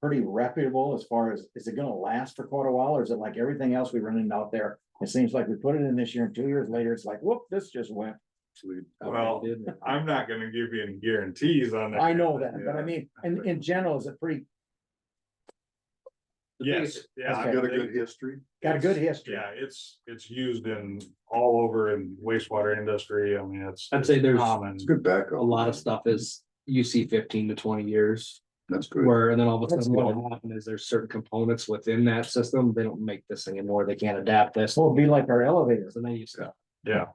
pretty reputable as far as, is it gonna last for quite a while, or is it like everything else we run into out there? It seems like we put it in this year, and two years later, it's like, whoop, this just went. Well, I'm not gonna give you any guarantees on that. I know that, but I Yeah. mean, in, in general, is it pretty, Yes, yeah. Okay. I Got a think- good history. got a good history? Yeah, it's, it's used in all over in wastewater industry. I mean, it's. I'd say there's Common. It's good backup. a lot of stuff is you see fifteen to twenty years. That's good. Where and then all of a That's sudden what good. will happen is there's certain components within that system, they don't make this anymore, they can't adapt this, So it'd be like our elevators. so then you stop. Yeah,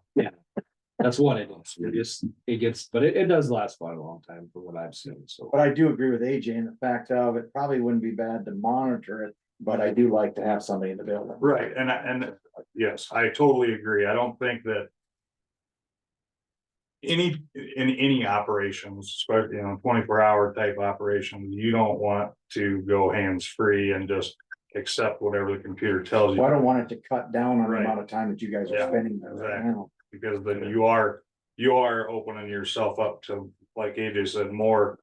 That's what it is, it just, it gets, but it, it does last quite a long time from what I've seen, so. But I do agree with AJ in the fact of it probably wouldn't be bad to monitor it, but I do like to have somebody in the building. right. And, I- and yes, I totally agree. I don't think that. Any, in any operations, especially, you know, twenty-four hour type operations, you don't want to go hands-free and just accept whatever the computer tells you. Well, I don't want it to cut down on the Right. amount of time that you guys Yeah, are spending there right exactly. now. because then you are, you are opening yourself up to, like AJ said, more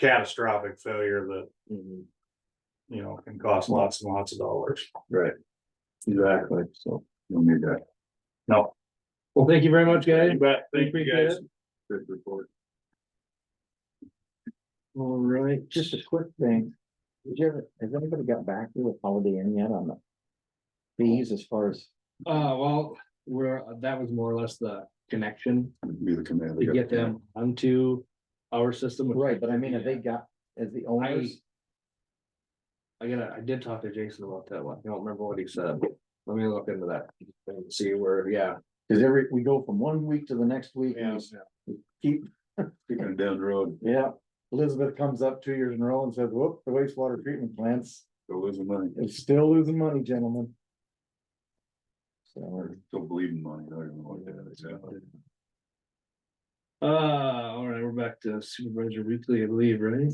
catastrophic failure that, Mhm, you know, can cost lots and lots of dollars. Exactly, so, Don't need that. No. well, thank you very much, guys. You bet. Thank you Appreciate guys. it. Good report. All right, just a quick thing. Did you ever, has anybody got back to you with Holiday Inn yet on the fees as far as, Uh, well, we're, that was more or less the connection Be the commander. to get them onto our system. which- right, but I mean, have they got, as the owners? I gotta, I did talk to Jason about that one, I don't remember what he said, let me look into that, and see where, yeah. Cause every, we go from one week to the next week. and we Keep, Speaking of down the road, yeah, Elizabeth comes up two years in a row and says, whoop, the wastewater treatment plants they're losing money. is still losing money, gentlemen. So, Still bleeding money. I don't know what that is. Uh, all right, we're back to supervisor weekly, I believe, right?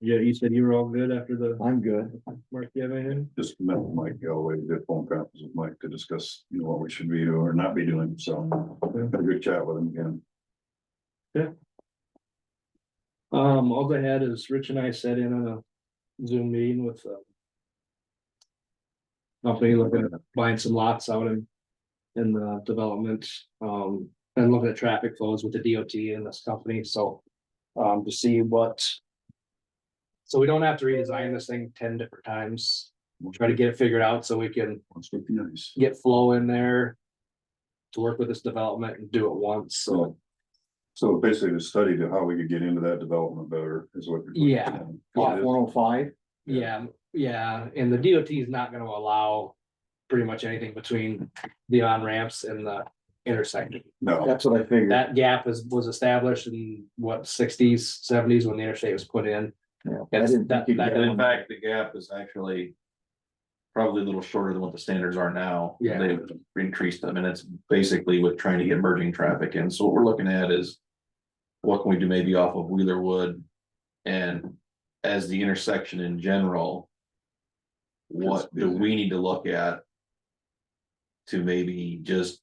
Yeah, you said you were all good after the, I'm good. Mark, you have anything? Just met with Mike Galway, did phone conference with Mike to discuss, you know, what we should be doing or not be doing. So had a good chat with him again. Um, all I had is Rich and I sat in on a Zoom meeting with, uh. Company looking at buying some lots out in, in the development, um, and looking at traffic flows with the DOT and this company, so. Um, to see what. So we don't have to redesign this thing ten different times, We'll try to get it figured out so we can Must be nice. get flow in there. To work with this development and do it once, so. So. So basically the study to how we could get into that development better is what. you're- Yeah. Off one oh five, Yeah, yeah, and the DOT is not gonna allow pretty much anything between the on ramps and the intersection. No, that's what I figured. That gap is, was established in what sixties, seventies when the interstate was put in. Yeah, I That's- didn't that- think you'd that- get And in fact, the gap is actually. Probably a little shorter than what the standards are now. Yeah. They've increased them and it's basically with trying to get merging traffic in. So what we're looking at is. What can we do maybe off of Wheeler Wood? And as the intersection in general. What do we need to look at? To maybe just.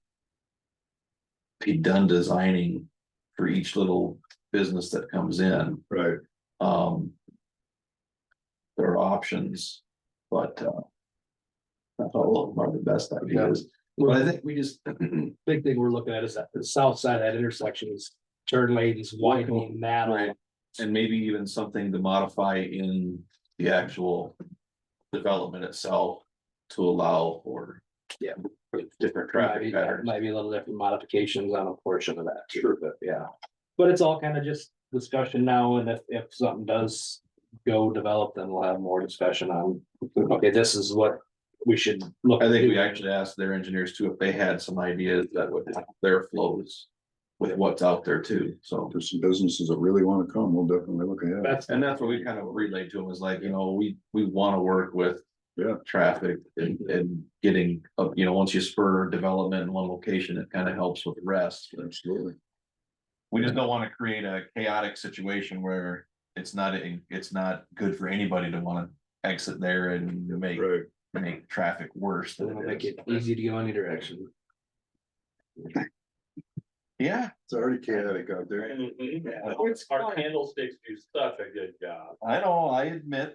Be done designing for each little business that comes in right. um. There are options, but uh. That's all of the best ideas, but I think we just, Big thing we're looking at is that the south side of that intersection is turn lanes widening that. Right. and maybe even something to modify in the actual. Development itself to allow for. Yeah. Different Might traffic patterns. Maybe a little different modifications on a portion of that. Sure, but yeah. But it's all kind of just discussion now, and if, if something does go develop, then we'll have more discussion on, okay, this is what we should look. I at think we doing. actually asked their engineers too, if they had some ideas that would help their flows. With what's out there too, so. There's some businesses that really wanna come. We'll definitely look ahead. That's, And that's what we kind of relayed to him is like, you know, we, we want to work with. Yeah. Traffic and, and getting, uh, you know, once you spur development in one location, it kind of helps with the rest. Absolutely. We just don't want to create a chaotic situation where it's not, it's not good for anybody to want to exit there and make, Right. make traffic worse than it'll it make is. it easy to go any direction. Yeah, It's already chaotic out there. Our candlesticks do such a good job. I know, I admit